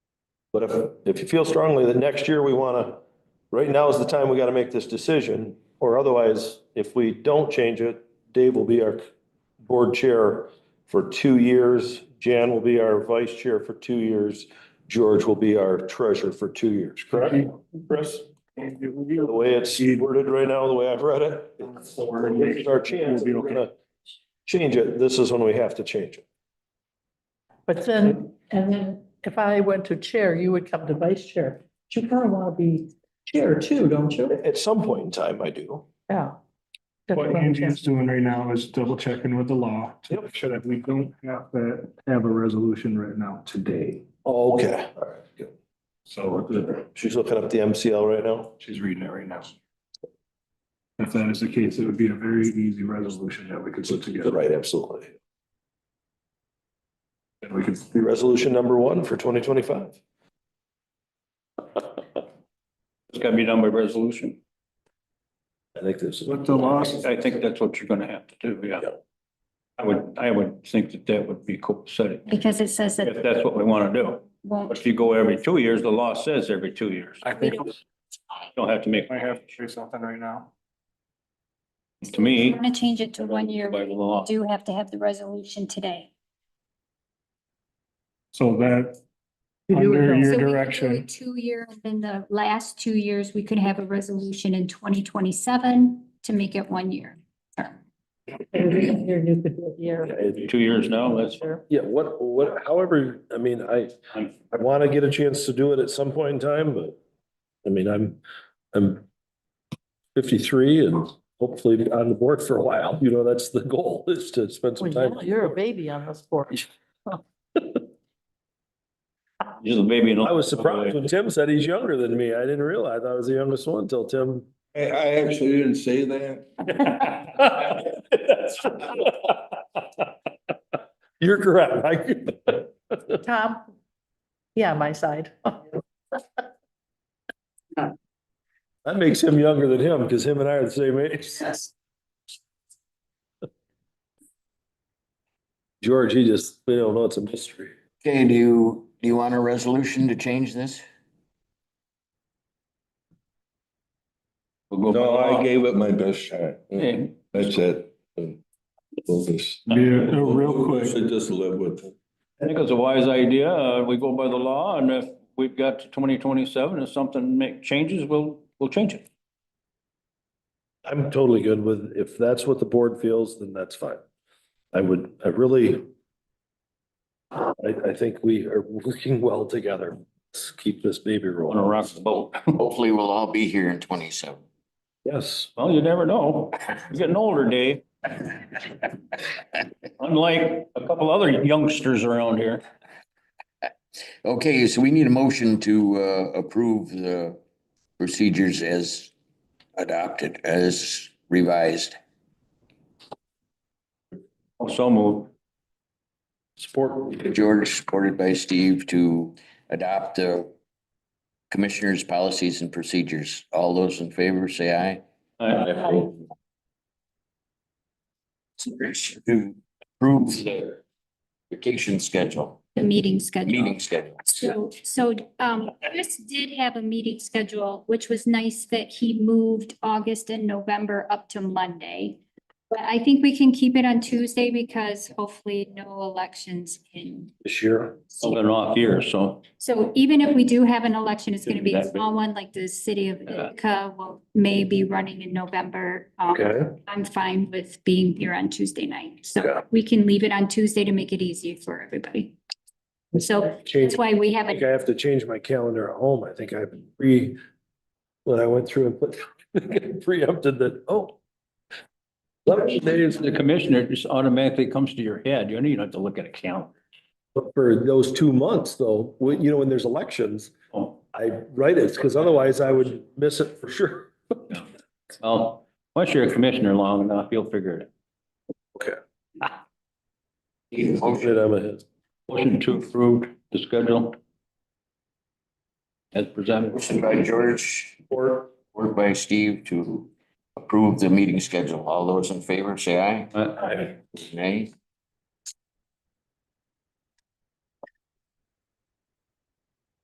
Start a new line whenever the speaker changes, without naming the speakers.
But if, if you feel strongly that next year we want to, right now is the time we got to make this decision, or otherwise, if we don't change it, Dave will be our board chair for two years, Jan will be our vice chair for two years, George will be our treasurer for two years, correct? Chris? The way it's worded right now, the way I've read it, it's our chance. If we're gonna Change it, this is when we have to change it.
But then, and then if I went to chair, you would come to vice chair. But You kind of want to be chair too, don't you?
At some point in time, I do.
Yeah.
What Angie is doing right now is double checking with the law to
Yep.
make sure that we don't have to have a resolution right now today.
Okay.
So
She's looking up the MCL right now.
she's reading it right now. If that is the case, it would be a very easy resolution that we could put together.
Right, absolutely.
And we could,
Be resolution number one for twenty twenty-five.
It's gotta be done by resolution.
I think this is.
what the law,
I think that's what you're gonna have to do, yeah.
Yeah.
I would, I would think that that would be copacetic,
Because it says that
if
it
that's what we wanna do. But
won't,
if you go every two years, the law says every two years.
I think,
You Don't have to make,
I have to say something right now.
to me.
want to change it to one year,
By the
we
law.
do have to have the resolution today.
So that,
You do
Under
it
your-
though.
So we could do
direction.
it Two years, in the last two years, we could have a resolution in twenty twenty-seven to make it one year.
Every year you could do it year.
Two years now, that's-
Yeah, what, what, however, I mean, I,
I'm-
I want to get a chance to do it at some point in time, but I mean, I'm, I'm fifty-three and hopefully on the board for a while. You know, that's the goal is to spend some
Well,
time.
yeah, You're a baby on this board.
You're the baby. in all-
I was surprised when Tim said he's younger than me. I didn't realize I was the youngest one till Tim.
I, I actually didn't say that.
You're correct. I-
Tom? Yeah, my side.
That makes him younger than him because him and I are the same age. George, he just, we don't know, it's a mystery.
Okay, do you, do you want a resolution to change this?
We'll go by
No, I
law.
gave it my best shot.
Yeah.
That's it. We'll just-
Yeah, real quick,
Should just live with it.
I think it's a wise idea. Uh, we go by the law and if we've got to twenty twenty-seven, if something make changes, we'll, we'll change it.
I'm totally good with, if that's what the board feels, then that's fine. I would, I really, I, I think we are working well together. Let's keep this baby
Want to
rolling.
rock the boat.
Hopefully, we'll all be here in twenty-seven.
Yes.
Well, you never know. You're getting older, Dave. Unlike a couple other youngsters around here.
Okay, so we need a motion to uh approve the procedures as adopted, as revised.
Oh, So moved.
Support.
George, supported by Steve, to adopt the commissioners' policies and procedures. All those in favor, say aye.
I-
To approve the vacation schedule,
The meeting schedule.
meeting schedule.
So, so, um, Chris did have a meeting schedule, which was nice that he moved August and November up to Monday. But I think we can keep it on Tuesday because hopefully no elections in.
This year.
It's been an off year, so
So even if we do have an election, it's gonna
Shouldn't be
be a
that big.
small one, like the city of Ithaca will may be running in November. Um, I'm fine with being here on Tuesday night,
Yeah.
so we can leave it on Tuesday to make it easy for everybody. So
Change.
that's why we
I
have
think
it,
I have to change my calendar at home. I think I pre, when I went through and put, I think I preempted that, oh. Eleven days
the commissioner just automatically comes to your head. You don't even have to look at a calendar.
for those two months though, when, you know, when there's elections,
Oh,
I write it because otherwise I would miss it for sure.
Well, once you're a commissioner long enough, you'll figure it. out.
Shit, I'm ahead.
Motion to approve the schedule. As presented.
Motion by George,
Or
Work by Steve to approve the meeting schedule. All those in favor, say aye.
I-
Nay.